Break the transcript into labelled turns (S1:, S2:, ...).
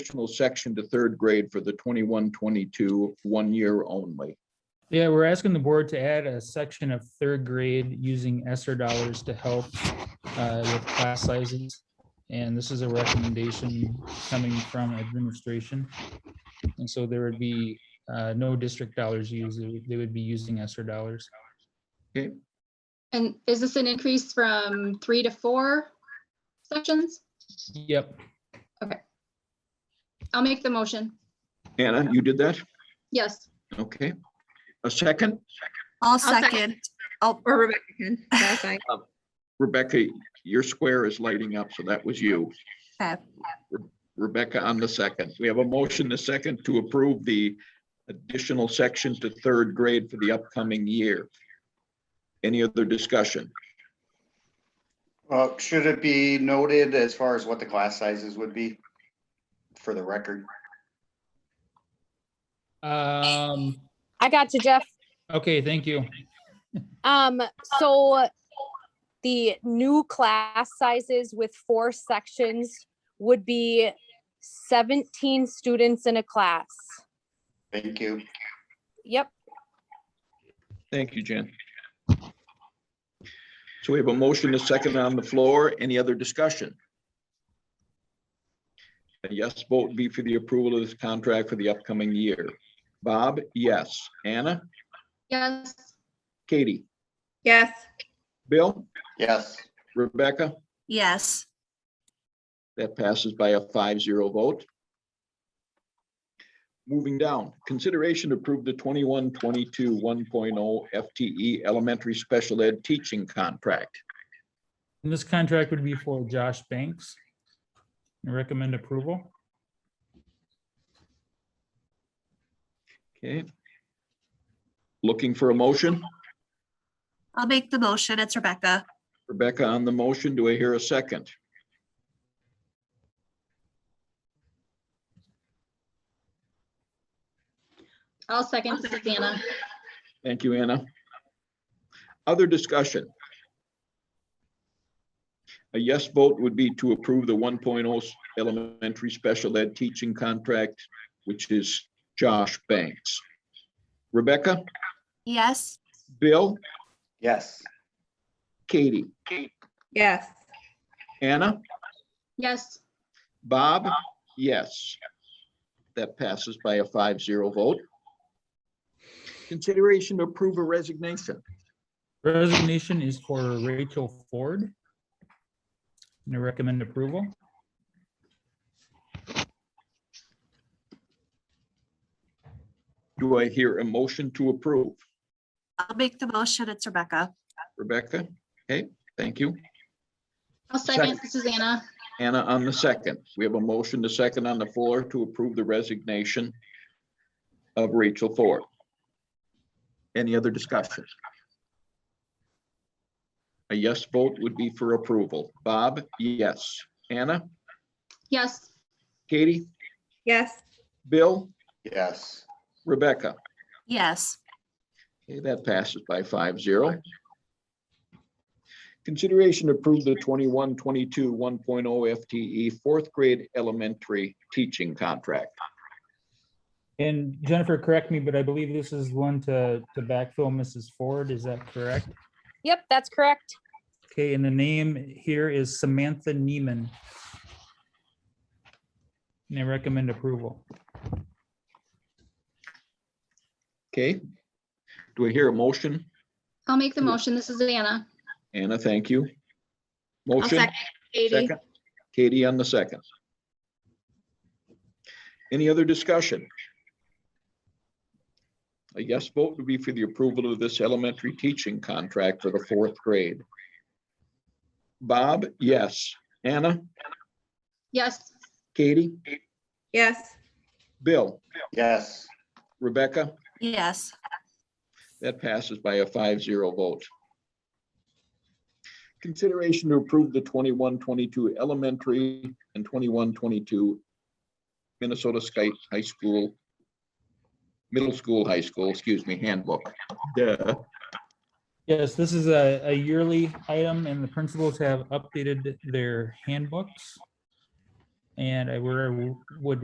S1: additional section to third grade for the 21-22 one year only.
S2: Yeah, we're asking the board to add a section of third grade using ESSER dollars to help uh, with class sizes. And this is a recommendation coming from administration. And so there would be uh, no district dollars used. They would- They would be using ESSER dollars.
S3: And is this an increase from three to four sections?
S2: Yep,
S3: I'll make the motion.
S1: Anna, you did that?
S3: Yes.
S1: Okay. A second?
S4: I'll
S3: second.
S4: second. Oh, I'll,
S5: Or Rebecca can, that's fine.
S1: Rebecca, your square is lighting up, so that was you.
S4: okay.
S1: Rebecca on the second. We have a motion, the second, to approve the additional section to third grade for the upcoming year. Any other discussion?
S6: Well, Uh, should it be noted as far as what the class sizes would be? For the record,
S2: Um,
S7: I got you, Jeff.
S2: okay, thank you.
S7: Um, so the new class sizes with four sections would be seventeen students in a class.
S6: thank you.
S7: Yep,
S1: Thank you, Jen. So we have a motion, a second on the floor. Any other discussion? A yes vote would be for the approval of this contract for the upcoming year. Bob, yes. Anna,
S3: Yes.
S1: Katie,
S5: Yes,
S1: Bill,
S6: Yes,
S1: Rebecca,
S4: Yes.
S1: that passes by a five zero vote. Moving down, consideration to approve the 21-22 1.0 FTE E elementary special ed teaching contract.
S2: And this contract would be for Josh Banks. I Recommend approval.
S1: Okay. Looking for a motion?
S4: I'll make the motion. It's Rebecca.
S1: Rebecca on the motion. Do I hear a second?
S3: I'll second Susanna.
S1: Thank you, Anna. Other discussion? A yes vote would be to approve the 1.0 elementary special ed teaching contract, which is Josh Banks. Rebecca,
S4: Yes.
S1: Bill,
S6: yes,
S1: Katie,
S5: yes,
S1: Anna?
S3: Yes.
S1: Bob? Yes. That passes by a five zero vote. Consideration to approve a resignation.
S2: Resignation is for Rachel Ford. And I recommend approval.
S1: Do I hear a motion to approve?
S4: I'll make the motion. It's Rebecca.
S1: Rebecca? Okay, thank you.
S3: I'll second Susanna.
S1: Anna on the second. We have a motion to second on the floor to approve the resignation of Rachel Ford. Any other discussion? A yes vote would be for approval. Bob? Yes. Anna?
S3: Yes.
S1: Katie?
S5: yes,
S1: Bill?
S6: yes,
S1: Rebecca?
S4: Yes.
S1: Okay, that passes by five zero. Consideration to approve the 21-22 1.0 FTE E fourth grade elementary teaching contract.
S2: And Jennifer, correct me, but I believe this is one to, to backfill Mrs. Ford. Is that correct?
S7: yep, that's correct.
S2: Okay, and the name here is Samantha Neiman. And I recommend approval.
S1: Okay? Do I hear a motion?
S3: I'll make the motion. This is Anna.
S1: Anna, thank you.
S5: I'll
S1: Motion,
S5: second Katie.
S1: second. Katie on the second. Any other discussion? A yes vote would be for the approval of this elementary teaching contract for the fourth grade. Bob, yes. Anna?
S3: Yes.
S1: Katie,
S5: Yes,
S1: Bill,
S6: yes,
S1: Rebecca,
S4: Yes.
S1: that passes by a five zero vote. Consideration to approve the 21-22 elementary and 21-22 Minnesota State High School, middle school, high school, excuse me, handbook. Duh.
S2: Yes, this is a, a yearly item and the principals have updated their handbooks. And I were- would